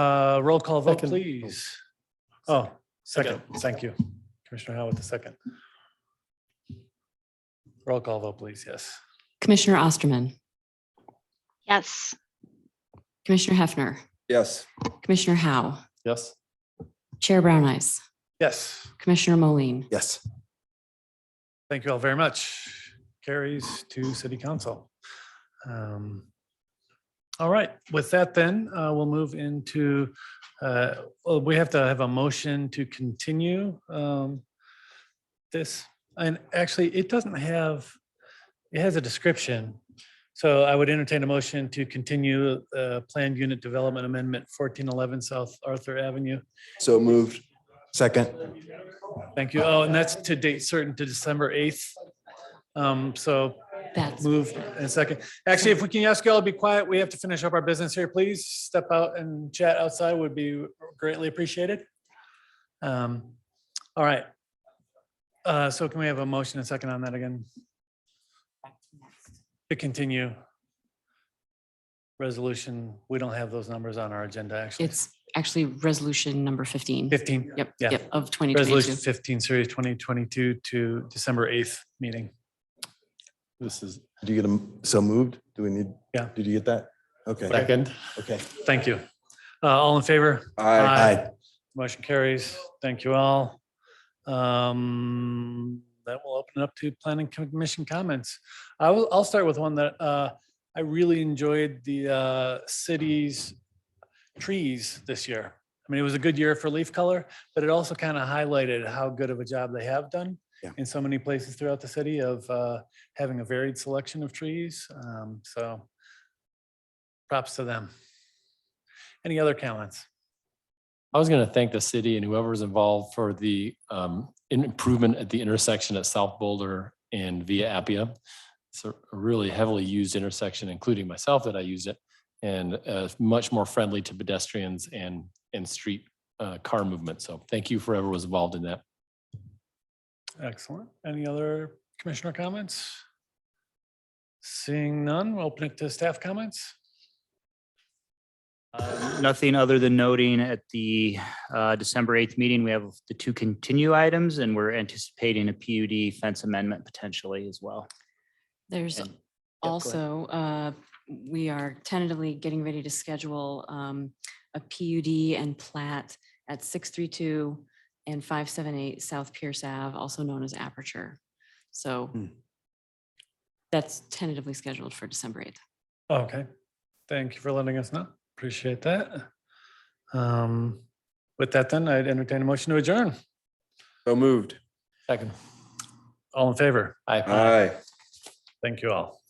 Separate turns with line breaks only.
Uh, roll call vote,
Second.
please. Oh, second, thank you. Commissioner Howe with the second. Roll call vote, please, yes.
Commissioner Osterman,
Yes.
Commissioner Hefner,
Yes.
Commissioner Howe,
Yes.
Chair Brown Eyes,
Yes,
Commissioner Moline.
Yes.
thank you all very much. Carries to city council. Um, All right, with that then, uh, we'll move into, uh, oh, we have to have a motion to continue um, this. And actually, it doesn't have, it has a description. So I would entertain a motion to continue uh, Planned Unit Development Amendment 1411 South Arthur Avenue
So moved. Second.
Thank you. Oh, and that's to date certain to December 8th. Um, So
That's,
move in a second. Actually, if we can ask you all to be quiet, we have to finish up our business here. Please step out and chat outside would be greatly appreciated. Um, All right. Uh, So can we have a motion and second on that again? To continue. Resolution, we don't have those numbers on our agenda, actually.
it's actually resolution number 15.
15.
Yep,
yeah.
yep, of
Resolution
2022.
fifteen, series twenty twenty-two to December eighth meeting.
This is
Do you get a, so moved? Do we need?
Yeah.
Did you get that? Okay,
second.
okay.
Thank you. Uh, all in favor? Aye.
Aye.
Motion carries. Thank you all. Um, that will open it up to planning commission comments. I will, I'll start with one that, uh, I really enjoyed the, uh, city's trees this year. I mean, it was a good year for leaf color, but it also kind of highlighted how good of a job they have done
Yeah.
in so many places throughout the city of, uh, having a varied selection of trees. Um, so props to them. Any other comments?
I was going to thank the city and whoever's involved for the um, in- improvement at the intersection at South Boulder and Via Appia. It's a really heavily used intersection, including myself that I use it, and uh, much more friendly to pedestrians and, and street uh, car movement. So thank you for whoever was involved in that.
Excellent. Any other commissioner comments? Seeing none, we'll open it to staff comments.
Uh, Nothing other than noting at the uh, December 8th meeting, we have the two continue items and we're anticipating a PUD fence amendment potentially as well.
There's
And- go ahead.
also, uh, we are tentatively getting ready to schedule um, a PUD and plat at 632 and 578 South Pierce Ave, also known as Aperture. So
Hmm.
that's tentatively scheduled for December 8th.
Okay, thank you for letting us know. Appreciate that. Um, With that then, I'd entertain a motion to adjourn.
So moved.
Second.
All in favor?
Aye.
Aye.
Thank you all.